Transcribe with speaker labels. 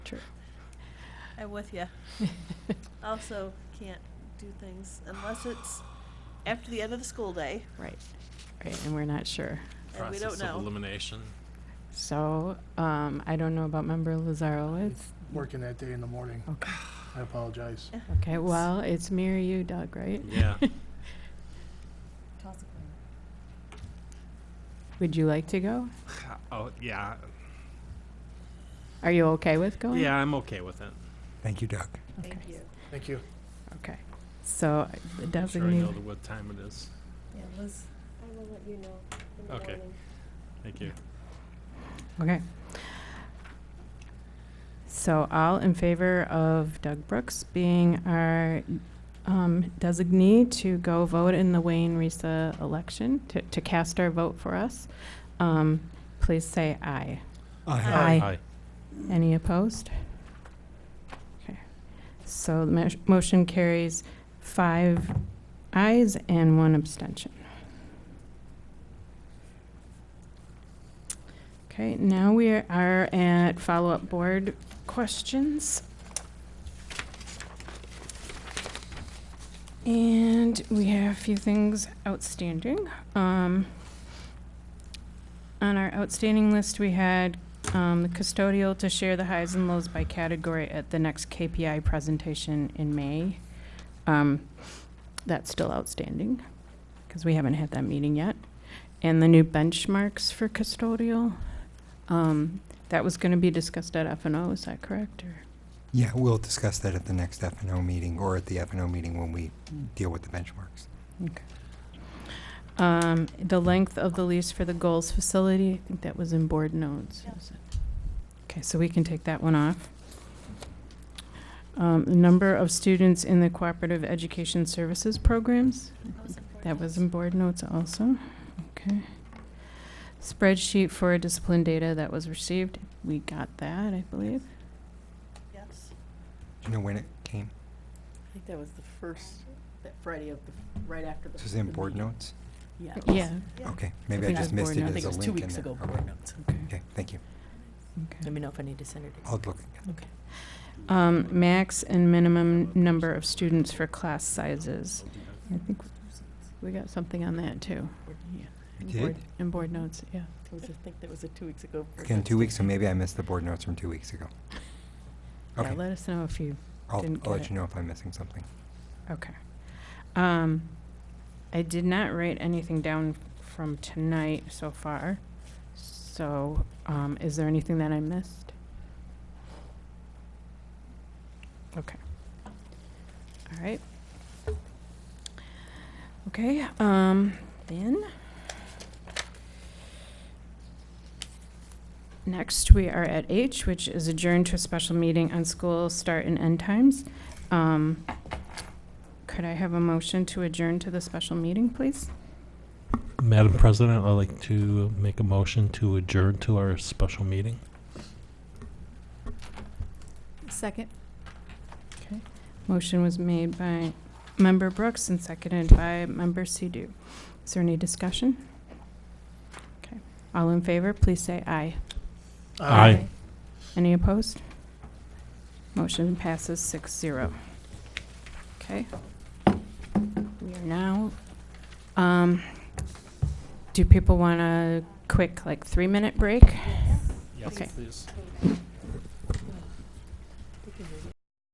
Speaker 1: I'm with you. Also, can't do things unless it's after the end of the school day.
Speaker 2: Right, right, and we're not sure.
Speaker 1: And we don't
Speaker 3: Process of
Speaker 1: know.
Speaker 3: elimination.
Speaker 2: So, um, I don't know about member Lazarowitz.
Speaker 4: working that day in the morning.
Speaker 2: Okay.
Speaker 4: I apologize.
Speaker 2: Okay, well, it's me or you, Doug, right?
Speaker 3: Yeah.
Speaker 2: Would you like to go?
Speaker 3: Oh, yeah.
Speaker 2: Are you okay with going?
Speaker 3: Yeah, I'm okay with it.
Speaker 5: Thank you, Doug.
Speaker 2: Okay.
Speaker 1: Thank you.
Speaker 4: Thank you.
Speaker 2: Okay, so uh, the
Speaker 3: I'm sure I know
Speaker 2: designated,
Speaker 3: the- what time it is.
Speaker 6: Yeah, Liz,
Speaker 7: I will let you know in the
Speaker 3: Okay.
Speaker 7: morning.
Speaker 3: Thank you.
Speaker 2: okay. So all in favor of Doug Brooks being our um, designee to go vote in the Wayne Risa election, to- to cast our vote for us, um, please say aye.
Speaker 1: Aye.
Speaker 3: Aye.
Speaker 2: Any opposed? Okay. So the mo- motion carries five ayes and one abstention. Okay, now we are at follow-up board questions. And we have a few things outstanding. Um, On our outstanding list, we had um, the custodial to share the highs and lows by category at the next KPI presentation in May. Um, That's still outstanding, because we haven't had that meeting yet. And the new benchmarks for custodial, um, that was going to be discussed at F and O, is that correct? or-
Speaker 5: Yeah, we'll discuss that at the next F and O meeting or at the F and O meeting when we deal with the benchmarks.
Speaker 2: Um, The length of the lease for the goals facility, I think that was in board notes.
Speaker 1: Yeah.
Speaker 2: was it? Okay, so we can take that one off. Um, the Number of students in the cooperative education services programs, that was in board notes also. Okay. Spreadsheet for discipline data that was received, we got that, I believe.
Speaker 1: Yes.
Speaker 5: Do you know when it came?
Speaker 6: I think that was the first, that Friday of the, right after the.
Speaker 5: This is in
Speaker 6: the
Speaker 5: board
Speaker 6: meeting.
Speaker 5: notes?
Speaker 6: Yeah. it was-
Speaker 2: Yeah,
Speaker 5: Okay, maybe I
Speaker 2: think it
Speaker 5: just
Speaker 2: was
Speaker 5: missed
Speaker 2: board
Speaker 5: it
Speaker 6: Oh, I
Speaker 2: notes.
Speaker 5: as
Speaker 6: think
Speaker 5: a
Speaker 6: it was two
Speaker 5: link in
Speaker 6: weeks
Speaker 5: there.
Speaker 6: ago,
Speaker 5: Okay.
Speaker 6: board notes.
Speaker 5: Okay, thank you.
Speaker 2: okay.
Speaker 6: Let me know if I need to send it.
Speaker 5: I'll look. again.
Speaker 2: Um, max and minimum number of students for class sizes. I think we got something on that too.
Speaker 6: Yeah,
Speaker 5: I
Speaker 2: in
Speaker 5: did?
Speaker 2: board- In board notes, yeah.
Speaker 6: it was, I think that was a two weeks ago. board
Speaker 5: Again,
Speaker 6: notes.
Speaker 5: two weeks, so maybe I missed the board notes from two weeks ago.
Speaker 2: Yeah,
Speaker 5: Okay,
Speaker 2: let us know if you,
Speaker 5: I'll,
Speaker 2: didn't
Speaker 5: I'll
Speaker 2: get
Speaker 5: let you know if I'm missing something.
Speaker 2: okay. Um, I did not write anything down from tonight so far. So, um, is there anything that I missed? Okay. All right. Okay, um, then. Next, we are at H, which is adjourned to a special meeting on school start and end times. Um, could I have a motion to adjourn to the special meeting, please?
Speaker 8: Madam President, I'd like to make a motion to adjourn to our special meeting.
Speaker 6: Second.
Speaker 2: Motion was made by Member Brooks and seconded by Member Sidhu. Is there any discussion? Okay. All in favor, please say aye.
Speaker 8: Aye.
Speaker 2: Any opposed? Motion passes six zero. Okay. We are now, um, do people want a quick, like, three-minute break?
Speaker 3: Yes,
Speaker 2: Okay.
Speaker 3: please.